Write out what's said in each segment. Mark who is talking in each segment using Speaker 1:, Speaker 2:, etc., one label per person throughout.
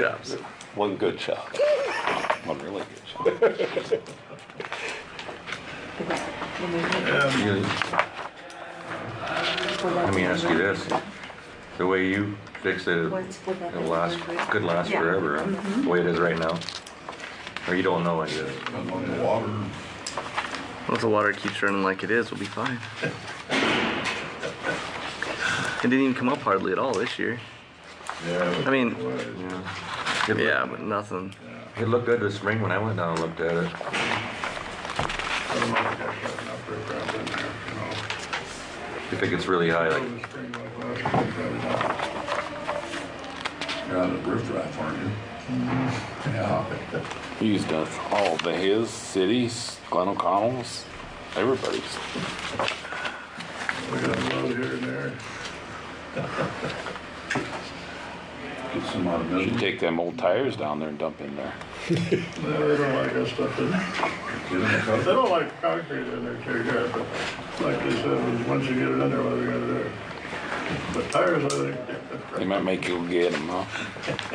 Speaker 1: jobs.
Speaker 2: One good shot. One really good
Speaker 3: You- Let me ask you this, the way you fixed it, it'll last, could last
Speaker 4: Yeah. Mm-hmm.
Speaker 3: forever, huh? the way it is right now? Or you don't know it yet?
Speaker 5: On the water,
Speaker 1: Well, if the water keeps running like it is, we'll be fine. It didn't even come up hardly at all this year.
Speaker 5: yeah.
Speaker 1: I mean-
Speaker 3: It looked-
Speaker 1: Yeah, but nothing.
Speaker 3: It looked good this spring when I went down and looked at it.
Speaker 5: I don't know if that's setting up right around in there, you know.
Speaker 3: If it gets really high, like,
Speaker 5: It was a spring like last year, probably not. You're on the roof rack, aren't you? Yeah.
Speaker 2: shot. He's done all the his, cities, Glen O'Connell's, everybody's.
Speaker 5: We got a load here and there. Get some out of
Speaker 2: You
Speaker 5: business.
Speaker 2: take them old tires down there and dump in there.
Speaker 5: They don't like that stuff in there. They don't like concrete in there too good, but like they said, once you get it in there, what are you gonna do? But tires, I think,
Speaker 2: They might make you go get them, huh?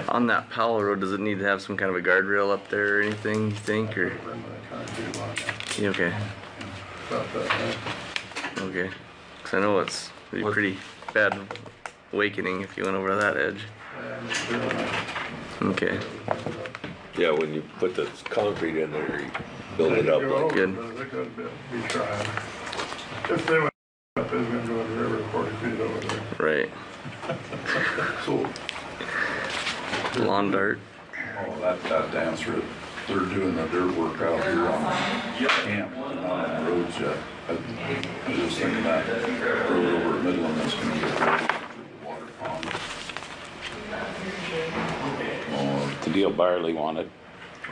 Speaker 1: On that Powell Road, does it need to have some kind of a guardrail up there or anything, you think, or?
Speaker 5: bring the concrete on,
Speaker 1: Yeah, okay,
Speaker 5: about that, huh?
Speaker 1: okay. Cause I know it's a
Speaker 3: What-
Speaker 1: pretty bad awakening if you went over that edge. Okay,
Speaker 6: Yeah, when you put the concrete in there, you build it up
Speaker 5: They
Speaker 6: like,
Speaker 1: good.
Speaker 5: go over, They could be be trying. If they went up, they was gonna go in the river forty feet over there.
Speaker 1: right.
Speaker 5: So,
Speaker 1: Lawn dart.
Speaker 6: Oh, that, that dance route, they're doing the dirt work out here on camp, not on the roads yet. I I was just thinking that road over at Midland, that's gonna get ready for the water pond. Oh,
Speaker 2: The deal Byerly wanted.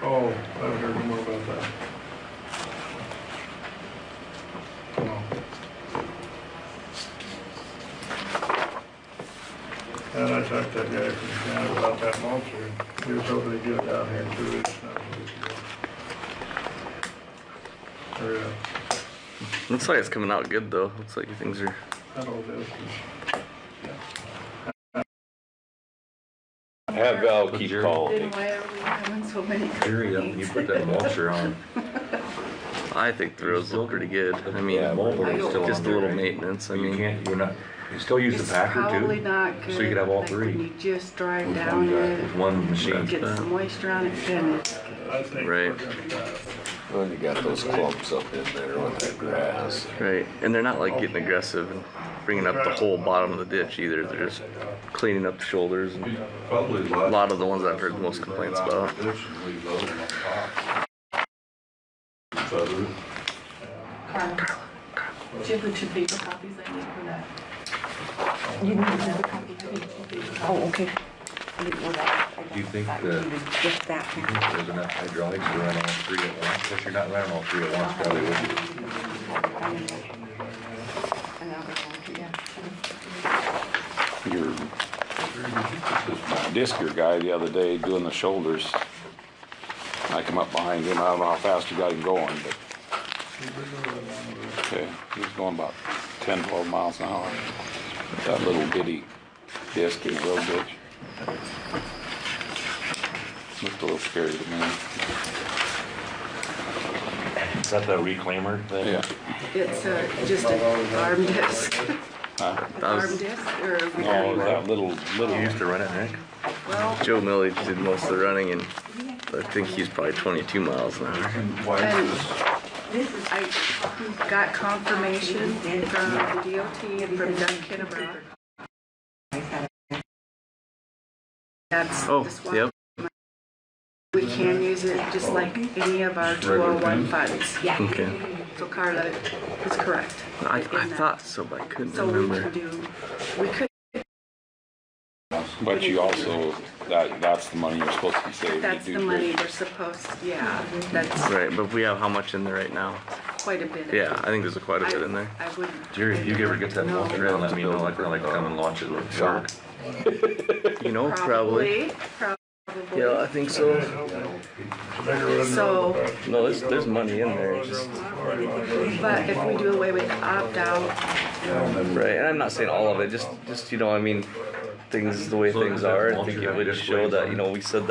Speaker 5: oh, I haven't heard no more about that. No. And I talked to that guy from Canada about that mulcher. He was hoping to get it out here in two weeks. not a week ago. Hurry up.
Speaker 1: Looks like it's coming out good though. Looks like things are
Speaker 5: I know this is.
Speaker 6: Have Val keep calling.
Speaker 4: Then why are we having so many
Speaker 3: Jerry, that- you
Speaker 4: complaints?
Speaker 3: put that mulcher on.
Speaker 1: I think the roads look pretty good. I mean,
Speaker 3: Yeah, mulcher is still
Speaker 1: just
Speaker 3: on
Speaker 1: a
Speaker 3: there,
Speaker 1: little
Speaker 3: right?
Speaker 1: maintenance. I
Speaker 3: You
Speaker 1: mean,
Speaker 3: can't, you're not, you still use
Speaker 4: It's
Speaker 3: the packer too?
Speaker 4: probably not good.
Speaker 3: So you could have all
Speaker 4: like, when
Speaker 3: three
Speaker 4: You just drive
Speaker 6: With one
Speaker 4: down
Speaker 6: guy,
Speaker 3: with
Speaker 4: it,
Speaker 3: one machine.
Speaker 4: get some moisture on it, then it's
Speaker 5: I think
Speaker 1: Right.
Speaker 6: Well, you got those clumps up in there with that grass.
Speaker 1: right. And they're not like getting aggressive and bringing up the whole bottom of the ditch either. They're just cleaning up the shoulders. And
Speaker 5: Probably
Speaker 1: a lot of the ones I've heard the most complaints about.
Speaker 4: Carla. Do you have the two paper copies I need for that? You need another copy,
Speaker 7: Oh, okay. I didn't know that. I
Speaker 3: You think
Speaker 7: thought
Speaker 3: that-
Speaker 7: it was Just that
Speaker 3: You
Speaker 7: one.
Speaker 3: think There's enough hydraulics to run all three at once, if you're not running all three at once, probably wouldn't.
Speaker 7: Another one, yeah.
Speaker 2: Your Disker guy the other day doing the shoulders. I come up behind him, I don't know how fast you got him going, but, okay, he was going about 10, 12 miles an hour. That little bitty disc in the road ditch. Looked a little scary to me.
Speaker 3: Is that the reclaimer thing?
Speaker 2: Yeah,
Speaker 4: It's uh, just an arm disc,
Speaker 2: huh?
Speaker 4: an arm disc or a
Speaker 2: No,
Speaker 4: recording.
Speaker 2: that little, little.
Speaker 3: You used to run it, Nick?
Speaker 4: Well,
Speaker 1: Joe Millage did most of the running, and I think he's probably 22 miles an hour.
Speaker 4: I got confirmation from the DOT and from Doug Kennebrough. That's
Speaker 1: Oh,
Speaker 4: the swap.
Speaker 1: yep.
Speaker 4: We can use it just like any of our 201 funds. Yeah.
Speaker 1: Okay.
Speaker 4: So Carla is correct.
Speaker 1: I, I
Speaker 4: in that.
Speaker 1: thought so, but I couldn't
Speaker 4: So we can
Speaker 1: remember.
Speaker 4: do, we could,
Speaker 2: But you also, that, that's the money you're supposed to be saving. You
Speaker 4: that's
Speaker 2: do
Speaker 4: the
Speaker 2: great.
Speaker 4: money we're supposed, yeah, that's
Speaker 1: Right, but we have how much in there right now?
Speaker 4: quite a bit.
Speaker 1: Yeah, I think there's quite a
Speaker 4: I-
Speaker 1: bit in there.
Speaker 4: I wouldn't.
Speaker 3: Jerry, if you ever get that
Speaker 4: No.
Speaker 3: mulcher in, let me know, I'd kinda like to come and launch it with Shark.
Speaker 1: You know, probably.
Speaker 4: Probably.
Speaker 1: Yeah, I think so.
Speaker 4: So-
Speaker 1: No, there's, there's money in there. it's just-
Speaker 4: But if we do away with opt-out,
Speaker 1: Right, and I'm not saying all of it, just, just, you know, I mean, things the way
Speaker 3: So
Speaker 1: things
Speaker 3: that
Speaker 1: are, I
Speaker 3: mulch
Speaker 1: think it
Speaker 3: you have
Speaker 1: would show
Speaker 3: displays
Speaker 1: that,
Speaker 3: on
Speaker 1: you
Speaker 3: it.
Speaker 1: know, we said that